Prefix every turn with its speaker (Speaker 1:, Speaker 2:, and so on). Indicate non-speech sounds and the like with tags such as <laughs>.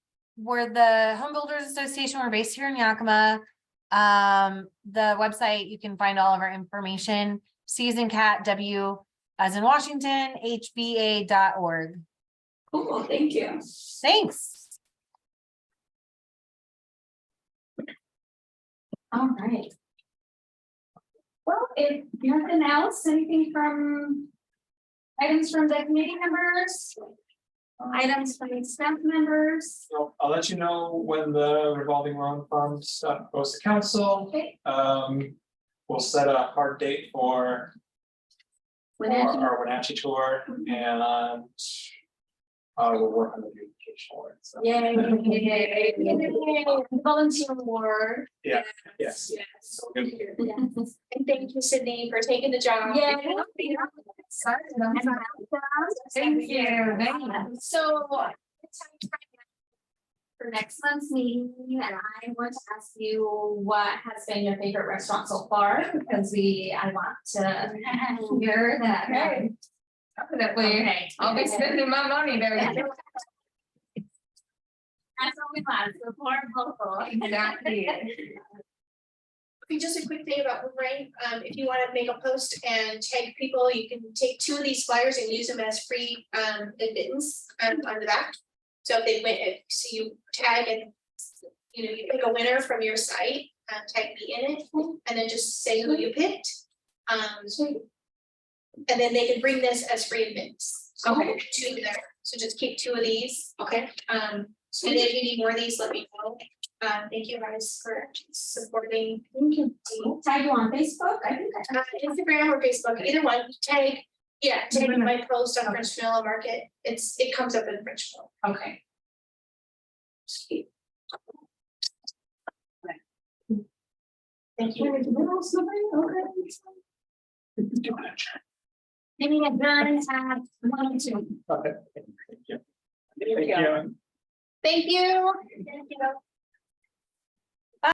Speaker 1: we're the Home Builders Association. We're based here in Yakima. Um, the website, you can find all of our information, Season Cat W as in Washington, hba.org.
Speaker 2: Cool, thank you.
Speaker 1: Thanks.
Speaker 2: All right. Well, if nothing else, anything from items from the committee members? Items from the staff members?
Speaker 3: So I'll let you know when the revolving loan fund stuff goes to council.
Speaker 2: Okay,
Speaker 3: Um, we'll set a hard date for for
Speaker 2: Wenatchee.
Speaker 3: our Wenatchee tour and uh, we'll work on the beautification one, so,
Speaker 2: Yay. Volunteer award.
Speaker 3: Yeah, yes.
Speaker 2: Yes.
Speaker 3: So we're good.
Speaker 2: Yes.
Speaker 4: And thank you, Sydney, for taking the job.
Speaker 2: Yeah.
Speaker 1: Sorry.
Speaker 2: Thank you.
Speaker 4: So.
Speaker 2: For next month's meeting, and I want to ask you what has been your favorite restaurant so far, because we, I want to <laughs> hear that.
Speaker 4: Okay. Definitely,
Speaker 2: Okay.
Speaker 4: I'll be spending my money
Speaker 2: That's
Speaker 4: there.
Speaker 2: what we want, support local.
Speaker 4: Exactly.
Speaker 5: Just a quick thing about Boomerang, um, if you wanna make a post and tag people, you can take two of these flyers and use them as free, um, admittance, um, on the back. So if they win, if, so you tag and, you know, you pick a winner from your site, um, tag me in it, and then just say who you picked. Um, and then they can bring this as free admittance. So
Speaker 2: Okay.
Speaker 5: Two there, so just keep two of these,
Speaker 2: Okay.
Speaker 5: um, and if you need more of these, let me know. Um, thank you guys for supporting
Speaker 2: Thank you. Tag you on Facebook, I think. I-
Speaker 5: uh, Instagram or Facebook, either one, tag, yeah, tag my post on French Vanilla Market, it's, it comes up in French Vanilla.
Speaker 2: Okay.
Speaker 5: Thank you.
Speaker 2: Any adjournments have one or two?
Speaker 3: Okay. Thank you.
Speaker 2: Thank you. Thank you.